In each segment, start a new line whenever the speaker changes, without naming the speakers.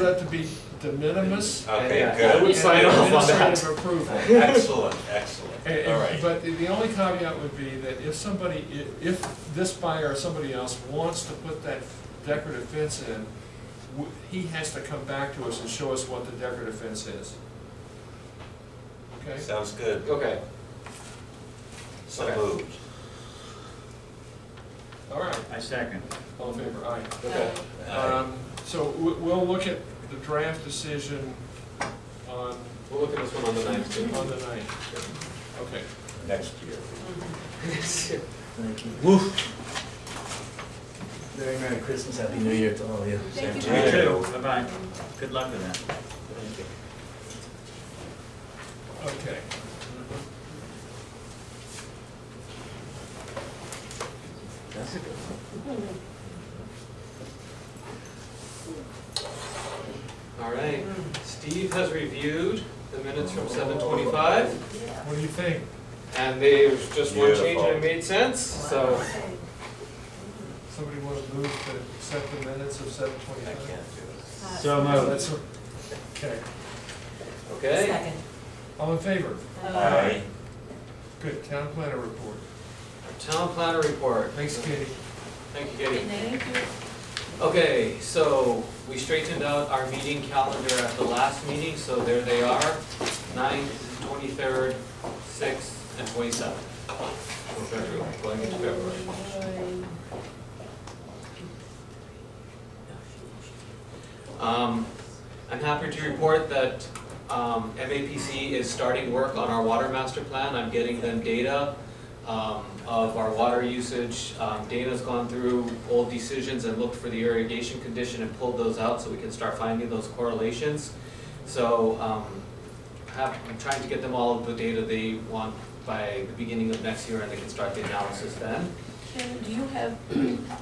that to be de minimis.
Okay,
Yeah. I
good.
would sign
and
off on that.
Administrative approval.
Excellent, excellent,
And-
all
and-
right.
Eh, But the- the only caveat would be that if somebody, i- if this buyer or somebody else wants to put that decorative fence in, w- he has to come back to us and show us what the decorative fence is. Okay?
Sounds good,
Okay,
so
Okay.
moved.
All right,
I second.
all in favor, aye.
okay.
Um, So we- we'll look at the draft decision on,
We'll look at this one on the ninth,
on
too.
the night. Okay.
Next year.
Thank you. Very Merry Christmas, Happy New Year to all of you.
Thank
Same
you.
to
You too. Bye-bye. Good luck with that.
Thank you.
Okay.
That's a good one.
All right, Steve has reviewed the minutes from seven twenty-five,
What do you think?
and there's just one change and
Beautiful.
it made sense, so.
Somebody want to move to accept the minutes of seven
I can't do
twenty-five?
it.
So moved.
That's, okay.
Okay,
Second.
All in favor?
Aye.
Good, town planner report.
our town planner report.
Thanks, Katie.
Thank you, Katie. Okay, so we straightened out our meeting calendar at the last meeting, so there they are, ninth, twenty-third, sixth, and twenty-seventh. February, going into February. Um, I'm happy to report that, um, MAPC is starting work on our water master plan. I'm getting them data, um, of our water usage. Um, Dana's gone through old decisions and looked for the irrigation condition and pulled those out so we can start finding those correlations. So, um, have, I'm trying to get them all of the data they want by the beginning of next year and they can start the analysis then.
Sharon, do you have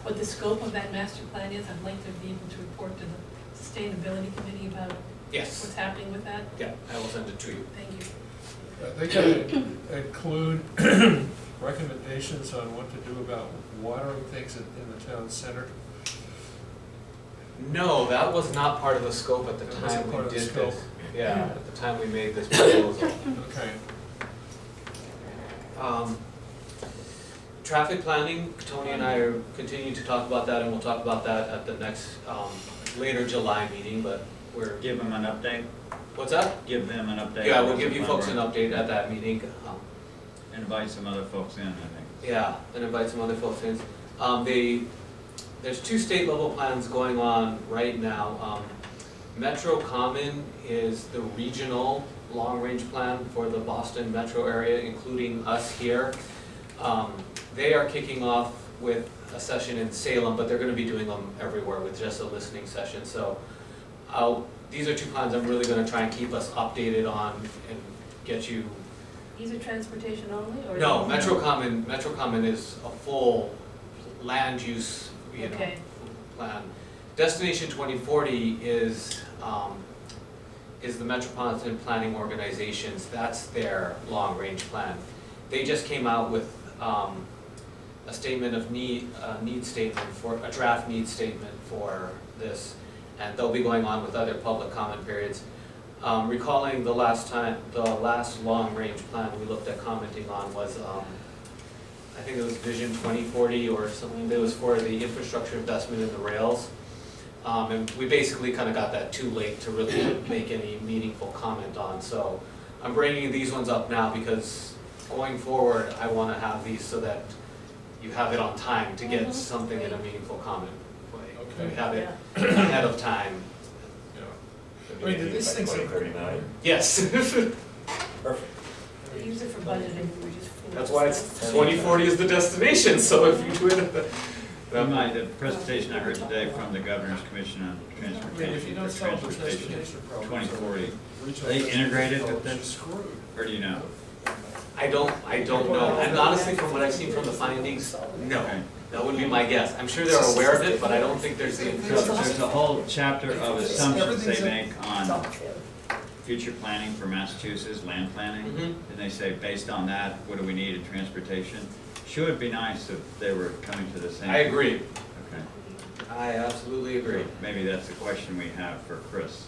what the scope of that master plan is? I'd like to be able to report to the sustainability committee about
Yes,
what's happening with that.
yeah, I will send it to you.
Thank you.
Uh, They gotta include recommendations on what to do about watering things in, in the town center.
No, that was not part of the scope at the
That wasn't
time
part
we
of the
did
scope.
this. Yeah, at the time we made this proposal.
Mm-hmm.
Okay,
Um, Traffic planning, Tony and I are continuing to talk about that, and we'll talk about that at the next, um, later July meeting, but we're,
Give them an update,
what's up?
give them an update.
Yeah, we'll give you folks an update at that meeting. Um,
Invite some other folks in, I think.
Yeah, and invite some other folks in. Um, they, there's two state level plans going on right now. Um, Metro Common is the regional long-range plan for the Boston metro area, including us here. Um, they are kicking off with a session in Salem, but they're gonna be doing them everywhere with just a listening session, so I'll, these are two plans I'm really gonna try and keep us updated on and get you
These are transportation only, or?
no, Metro Common, Metro Common is a full land use, you know,
Okay.
plan. Destination twenty forty is, um, is the Metropolitan Planning Organizations, that's their long-range plan. They just came out with, um, a statement of need, a need statement for, a draft need statement for this, and they'll be going on with other public comment periods. Um, recalling the last time, the last long-range plan we looked at commenting on was, um, I think it was Vision twenty forty or something, that was for the infrastructure investment in the rails. Um, and we basically kind of got that too late to really make any meaningful comment on, so I'm bringing these ones up now because going forward, I want to have these so that you have it on time to
Mhm.
get something in a meaningful comment way.
Okay.
We have it
Yeah.
ahead of time,
yeah. Wait, did this thing say-
Twenty thirty-nine.
yes.
We use it for budgeting, we just.
That's why it's, twenty forty is the destination, so if you do it at the.
In my, the presentation I heard today from the Governor's Commission on
I mean, if you
Transportation,
don't
for
solve the
transportation,
transportation problem.
twenty forty,
Regional
They integrated
transportation
with
problem,
this?
you're Screwed.
or do you know?
I don't, I don't know, and honestly, from what I've seen from the findings,
Okay.
no, that would be my guess, I'm sure they're aware of it, but I don't think there's the.
So There's a whole chapter of assumptions they make on future planning for Massachusetts, land planning.
Mhm.
And they say, based on that, what do we need in transportation? Sure, it'd be nice if they were coming to the same.
I agree,
Okay.
I, I absolutely agree.
Maybe that's the question we have for Chris.